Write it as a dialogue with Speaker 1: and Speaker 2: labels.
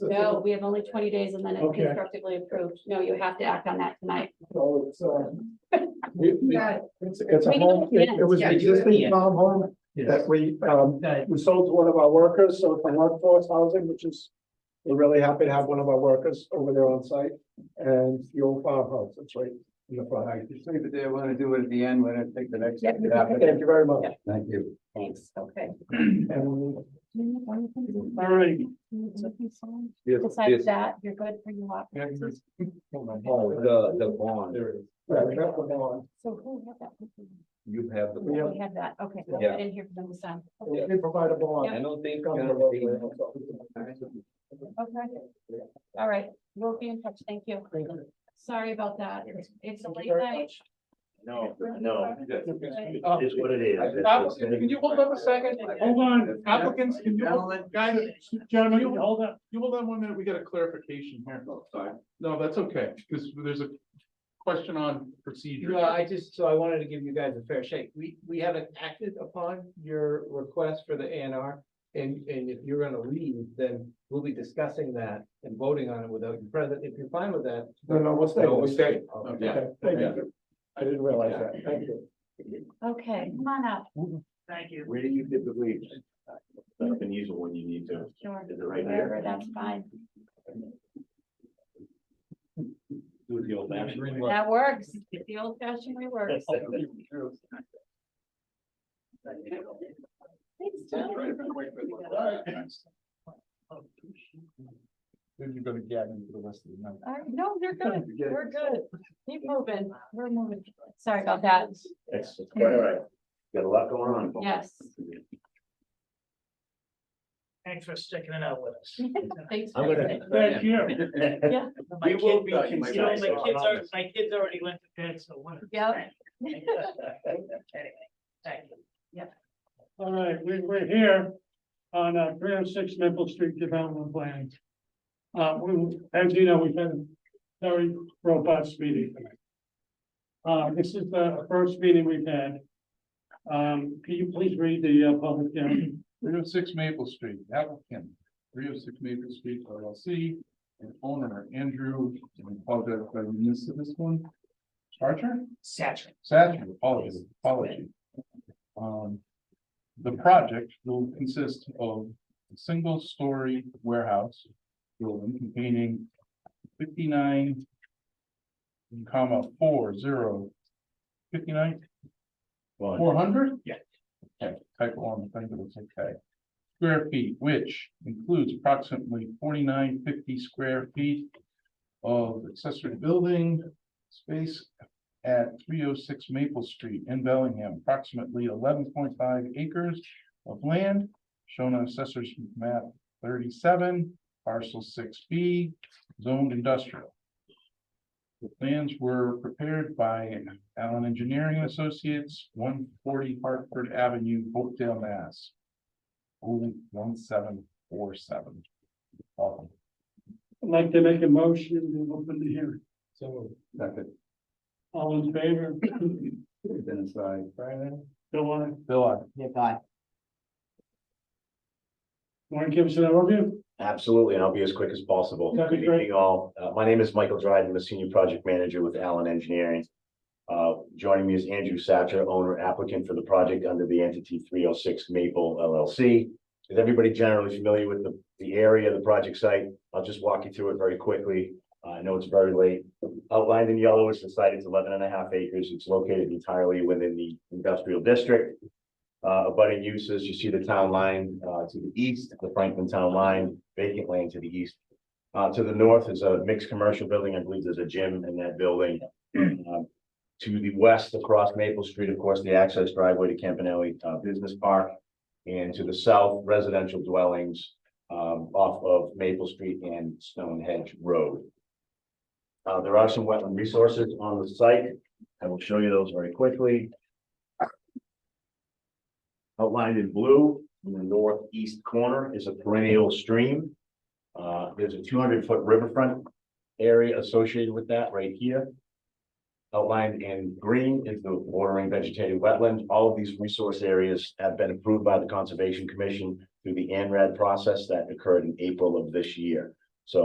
Speaker 1: No, we have only twenty days and then it's
Speaker 2: Okay.
Speaker 1: constructively approved. No, you have to act on that tonight.
Speaker 2: So it's, um, we- we- It's, it's a
Speaker 1: We
Speaker 2: home,
Speaker 1: can-
Speaker 2: it it was
Speaker 3: Yeah,
Speaker 2: an
Speaker 3: you do it.
Speaker 2: existing farm home that
Speaker 4: Yes.
Speaker 2: we, um, we sold to one of our workers, so it's a workforce housing, which is. We're really happy to have one of our workers over there on site and the old farmhouse, it's right in the front.
Speaker 3: Leave it there, when I do it at the end, when I take the next.
Speaker 1: Yeah.
Speaker 2: Thank you very much.
Speaker 3: Thank you.
Speaker 1: Thanks. Okay.
Speaker 2: And
Speaker 4: right.
Speaker 1: Besides that, you're good for your lot.
Speaker 3: Oh, the, the bond,
Speaker 2: Yeah, we got the bond.
Speaker 1: So who had that?
Speaker 3: you have the.
Speaker 2: We have-
Speaker 3: bond.
Speaker 1: We had that. Okay, well,
Speaker 3: Yeah.
Speaker 1: I didn't hear from them this time.
Speaker 2: We
Speaker 1: Okay.
Speaker 2: did provide a bond.
Speaker 3: I don't think.
Speaker 2: Come to
Speaker 3: uh,
Speaker 1: Okay. All right, we'll be in touch. Thank you.
Speaker 2: Thank you.
Speaker 1: Sorry about that. It's a
Speaker 2: Thank
Speaker 1: late
Speaker 2: you very
Speaker 1: night.
Speaker 2: much.
Speaker 5: No, no,
Speaker 1: Okay.
Speaker 4: Oh.
Speaker 5: it is what it is.
Speaker 4: Applicants, Can you hold up a second? Hold on, applicants, can you, hold- guys, gentlemen, you hold up, you hold on one minute, we got a clarification here.
Speaker 5: Oh,
Speaker 4: No, that's okay, because there's a question on procedure.
Speaker 6: No, I just, so I wanted to give you guys a fair shake. We, we haven't acted upon your request for the ANR, And, and if you're gonna leave, then we'll be discussing that and voting on it without you present. If you're fine with that.
Speaker 2: No, no, we'll stay.
Speaker 3: No, we'll stay.
Speaker 2: Okay,
Speaker 3: Yeah.
Speaker 2: Thank you. I didn't realize that. Thank you.
Speaker 1: Okay, come on up.
Speaker 6: Thank you.
Speaker 5: Where do you typically? Up and use it when you need to.
Speaker 1: Sure.
Speaker 5: Is it right
Speaker 1: Wherever,
Speaker 5: there?
Speaker 1: that's fine.
Speaker 5: Do the old fashioned way.
Speaker 1: That works. The old fashioned way works. Thanks, Joe.
Speaker 4: Then you go to Gavin for the rest of the night.
Speaker 1: All right, no, you're good.
Speaker 4: Forget it.
Speaker 1: We're good. Keep moving. We're moving. Sorry about that.
Speaker 5: That's quite all right. Got a lot going on. folks.
Speaker 1: Yes.
Speaker 6: Thanks for sticking it out with us.
Speaker 1: Thanks.
Speaker 3: I'm
Speaker 1: for
Speaker 3: gonna-
Speaker 1: everything.
Speaker 6: Thank you.
Speaker 1: Yeah.
Speaker 6: My
Speaker 5: We will
Speaker 6: kid,
Speaker 5: be
Speaker 6: my kids are-
Speaker 5: considered.
Speaker 6: my kids are, my kids already went to bed, so what?
Speaker 1: Yeah.
Speaker 6: Anyway, thank you.
Speaker 7: All right, we, we're here on uh, three oh six Maple Street Development Plan. Uh, we, as you know, we've had a very robust meeting tonight. Uh, this is the first meeting we've had. Um, can you please read the uh, public hearing?
Speaker 4: Three oh six Maple Street, applicant, three oh six Maple Street LLC, and owner Andrew, I apologize if I missed this one. Charger?
Speaker 6: Saturday.
Speaker 4: Satchel, apology, apology. Um, the project will consist of a single-story warehouse building containing fifty-nine comma four zero fifty-nine
Speaker 5: Well,
Speaker 4: Four hundred?
Speaker 5: Yeah.
Speaker 4: Okay, typo on the thing, but it's okay. Square feet, which includes approximately forty-nine fifty square feet of accessory building space at three oh six Maple Street in Bellingham, approximately eleven point five acres of land shown on assessor's map thirty-seven, parcel six B, zoned industrial. The plans were prepared by Allen Engineering and Associates, one forty Hartford Avenue, Oakdale, Mass. Oh, one seven four seven. Welcome.
Speaker 7: I'd like to make a motion to open the hearing.
Speaker 6: So,
Speaker 7: All in favor?
Speaker 3: Been inside.
Speaker 4: Brian,
Speaker 7: Bill, I,
Speaker 4: Bill, I-
Speaker 7: want to give us an overview?
Speaker 5: Absolutely, and I'll be as quick as possible.
Speaker 7: That'd be
Speaker 5: Good
Speaker 7: great.
Speaker 5: evening all. Uh, my name is Michael Dryden, I'm a senior project manager with Allen Engineering. Uh, joining me is Andrew Satcher, owner applicant for the project under the entity three oh six Maple LLC. Is everybody generally familiar with the, the area, the project site? I'll just walk you through it very quickly. Uh, I know it's very late. Outlined in yellow is the site, it's 11 and a half acres, it's located entirely within the industrial district. Uh, abutting uses, you see the town line, uh, to the east, the Franklin Town Line, vacant land to the east. Uh, to the north is a mixed commercial building, I believe there's a gym in that building. Uh, To the west, across Maple Street, of course, the access driveway to Campanelli, uh, Business Park. And to the south, residential dwellings, um, off of Maple Street and Stonehenge Road. Uh, there are some wetland resources on the site. I will show you those very quickly. Outlined in blue, in the northeast corner is a perennial stream. Uh, there's a two hundred foot riverfront area associated with that right here. Outlined in green is the watering vegetated wetland. All of these resource areas have been approved by the Conservation Commission through the ANRAD process that occurred in April of this year.